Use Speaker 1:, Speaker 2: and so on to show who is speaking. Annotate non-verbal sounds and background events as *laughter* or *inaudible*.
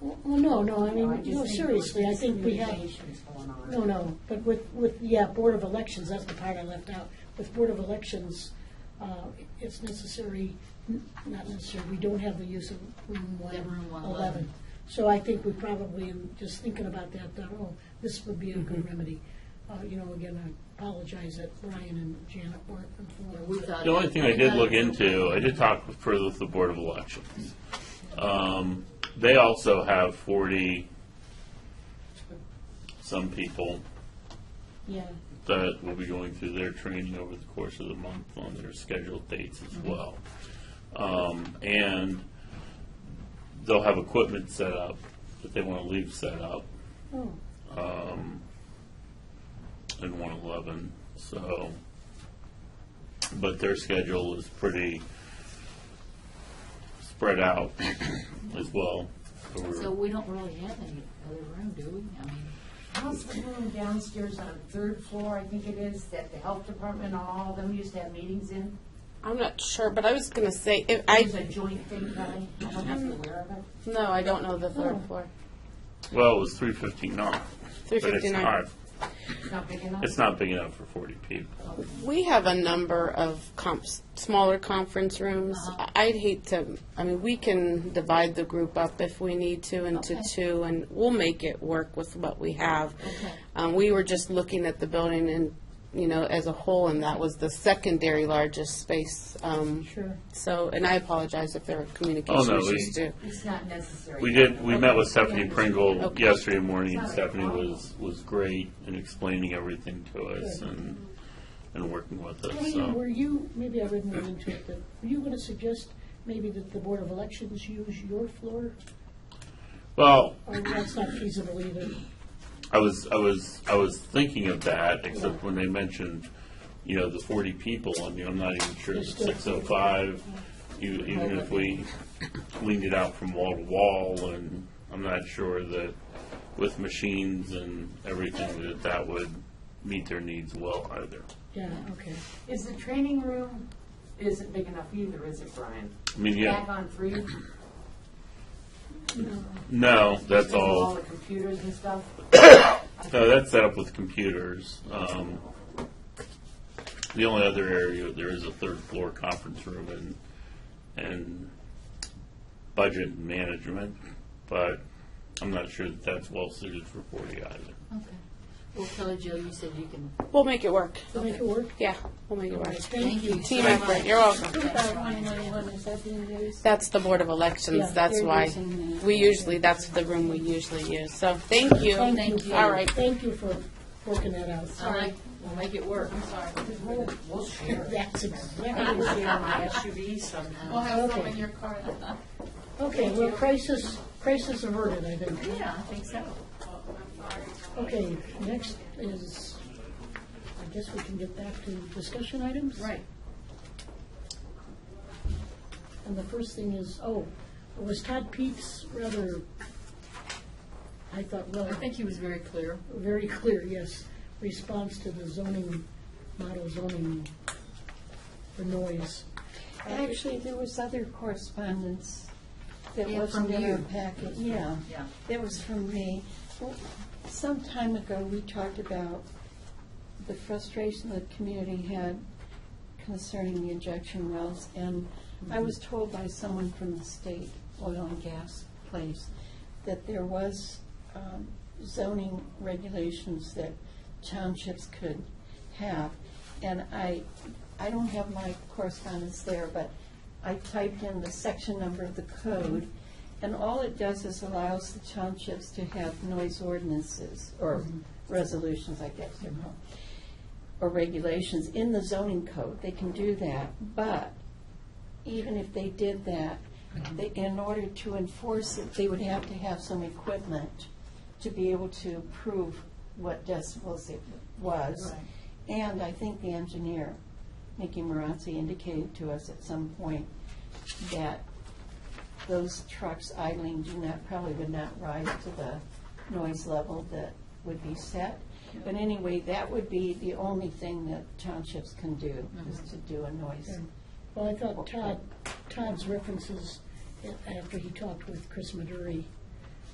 Speaker 1: Well, no, no, I mean,
Speaker 2: just
Speaker 1: no,
Speaker 2: think
Speaker 1: seriously, I
Speaker 2: there's
Speaker 1: think we have,
Speaker 2: communications going on.
Speaker 1: no, no, but with, with, yeah, Board of Elections, that's the part I left out. With Board of Elections, uh, it's necessary, n- not necessary, we don't have the use of room one
Speaker 3: Yeah,
Speaker 1: eleven.
Speaker 3: room 111.
Speaker 1: So I think we probably, in just thinking about that, thought, oh, this would be a good remedy. Uh, you know, again, I apologize that Brian and Janet weren't informed.
Speaker 3: We thought.
Speaker 4: The only thing I did look into, I did talk further with the Board of Elections. Um, They also have forty some people
Speaker 1: Yeah,
Speaker 4: that will be going through their training over the course of the month on their scheduled dates as well. Um, And they'll have equipment set up that they want to leave set up
Speaker 1: oh,
Speaker 4: in one eleven, so. But their schedule is pretty spread out *clears throat* as well. So we're-
Speaker 3: So we don't really have any other room, do we? I mean,
Speaker 2: How's the room downstairs on third floor, I think it is, that the health department, and all of them used to have meetings in?
Speaker 5: I'm not sure, but I was gonna say, if
Speaker 2: It was
Speaker 5: I,
Speaker 2: a joint thing, Kelly, I don't know if you're aware of it.
Speaker 5: no, I don't know the third floor.
Speaker 4: Well, it was three fifty-nine.
Speaker 5: Three
Speaker 4: But it's not,
Speaker 5: fifty-nine.
Speaker 2: It's not big enough?
Speaker 4: it's not big enough for forty people.
Speaker 5: We have a number of comps, smaller conference rooms.
Speaker 3: Uh-huh.
Speaker 5: I- I'd hate to, I mean, we can divide the group up if we need to into
Speaker 3: Okay.
Speaker 5: two, and we'll make it work with what we have.
Speaker 3: Okay.
Speaker 5: Um, we were just looking at the building and, you know, as a whole, and that was the secondary largest space. um,
Speaker 1: sure.
Speaker 5: So, and I apologize if there were communication
Speaker 4: Oh, no, we-
Speaker 5: issues too.
Speaker 2: It's not necessary.
Speaker 4: We did, we met with Stephanie Pringle
Speaker 5: Okay.
Speaker 4: yesterday morning, and Stephanie was, was great in explaining everything to us and, and working with us,
Speaker 1: Diane, were
Speaker 4: so.
Speaker 1: you, maybe I read more into it, but were you going to suggest maybe that the Board of Elections use your floor?
Speaker 4: Well,
Speaker 1: Or that's not feasible either?
Speaker 4: I was, I was, I was thinking of that, except when they mentioned, you know, the forty people, I mean, I'm not even sure that six oh five, even, even if we leaned it out from wall to wall, and I'm not sure that with machines and everything, that that would meet their needs well either.
Speaker 1: Yeah, okay.
Speaker 2: Is the training room, isn't big enough either, is it, Brian?
Speaker 4: I mean,
Speaker 2: Back
Speaker 4: yeah,
Speaker 2: on three?
Speaker 4: no, that's
Speaker 2: All
Speaker 4: all,
Speaker 2: the computers and stuff?
Speaker 4: no, that's set up with computers. Um, The only other area, there is a third floor conference room and, and budget management, but I'm not sure that that's well suited for forty either.
Speaker 3: okay. Well, Kelly Joe, you said you can.
Speaker 5: We'll make it work.
Speaker 1: To make it work?
Speaker 5: Yeah, we'll make it work.
Speaker 3: Thank you.
Speaker 5: Team
Speaker 3: so
Speaker 5: effort,
Speaker 3: much.
Speaker 5: you're welcome.
Speaker 6: is that the news?
Speaker 5: That's the Board of
Speaker 1: Yeah,
Speaker 5: Elections, that's
Speaker 6: they're
Speaker 5: why.
Speaker 6: using the-
Speaker 5: We usually, that's the room we usually use, so thank you.
Speaker 3: Thank you.
Speaker 5: All right.
Speaker 1: Thank you for working that out.
Speaker 3: All right, we'll make it work. I'm sorry.
Speaker 2: We'll share.
Speaker 1: That's exactly,
Speaker 2: I can share my SUV somehow.
Speaker 3: We'll have some in your car.
Speaker 1: okay, well, crisis, crisis averted, I think.
Speaker 3: Yeah, I think so.
Speaker 1: Okay, next is, I guess we can get back to discussion items?
Speaker 3: Right.
Speaker 1: And the first thing is, oh, was Todd Pete's rather, I thought, well.
Speaker 3: I think he was very clear.
Speaker 1: very clear, yes, response to the zoning, model zoning for noise.
Speaker 6: Actually, there was other correspondence that
Speaker 3: Yeah,
Speaker 6: wasn't
Speaker 3: from
Speaker 6: in our
Speaker 3: you.
Speaker 6: packet, yeah.
Speaker 3: Yeah.
Speaker 6: That was from me. Well, Some time ago, we talked about the frustration the community had concerning the injection wells, and I was told by someone from the state oil and gas place that there was um, zoning regulations that townships could have. And I, I don't have my correspondence there, but I typed in the section number of the code, and all it does is allows the townships to have noise ordinances, or resolutions, I guess they're called, or regulations in the zoning code. They can do that, but even if they did that, they- in order to enforce it, they would have to have some equipment to be able to prove what decibels it was. And I think the engineer, Nicky Marazzi, indicated to us at some point that those trucks idling do not, probably would not rise to the noise level that would be set. But anyway, that would be the only thing that townships can do, is to do a noise.
Speaker 1: Well, I thought Todd, Todd's references, a- after he talked with Chris Maduri,